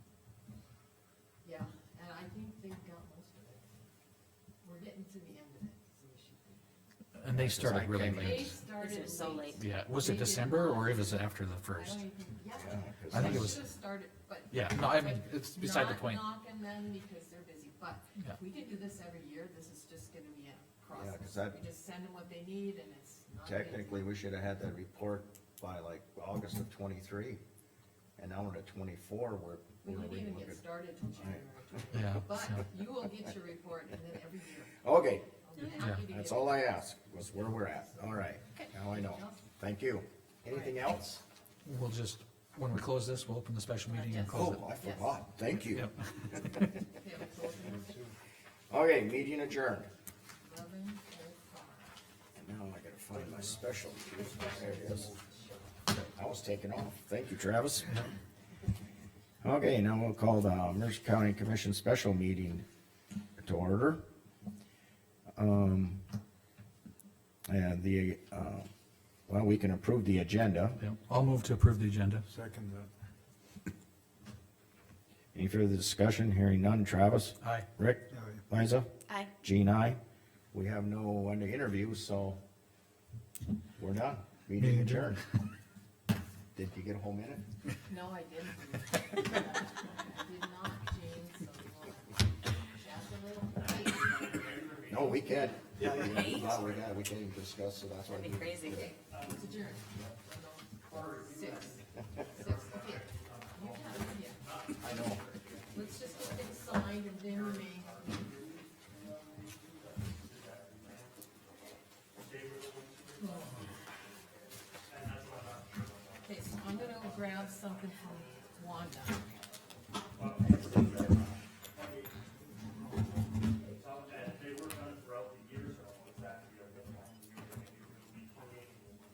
we're getting to the end of it, is the issue. And they Yeah, 'cause I started really came in- late. They started This is so late. late. Yeah, was it December or it was after the first? I don't even, yeah. I think it was- Should have started, but. Yeah, no, I mean, it's beside the Not point. knocking them because they're busy, but Yeah. if we can do this every year, this is just gonna be a Yeah, 'cause process. that- We just send them what they need and it's not. busy. Technically, we should have had that report by like August of twenty-three, and now we're at twenty-four, we're. We we're didn't even looking- get started till January. Yeah, But so- you will get your report and then every year. Okay, I'll be happy to give that's it. all I asked, was where we're at, all right, now I know, thank you. Anything else? We'll just, when we close this, we'll open the special meeting and close it. Oh, I forgot, thank you. Yep. Okay, we'll close it Okay, meeting adjourned, at 11:05. and now I gotta find my special, there it is. I was taken off, thank you, Travis. Okay, now we'll call the Mercer County Commission Special Meeting to order. Um, and the, uh, well, we can approve the agenda. Yep. I'll move to approve the agenda. Second that. Any further discussion? Hearing none. Travis? Aye. Rick? Aye. Liza? Aye. Gene, aye. We have no one to interview, so we're done. Meeting Meeting adjourned. Did you get a whole minute? No, I didn't. I did not, Gene, so we'll chat a little. No, we can. Yeah, we can, we can discuss, so that's why. That'd be crazy. Okay, it's adjourned. Six. Six, okay. You have, it, yeah. I know. Let's just get it signed and then we may. Okay, so I'm gonna grab something from Wanda.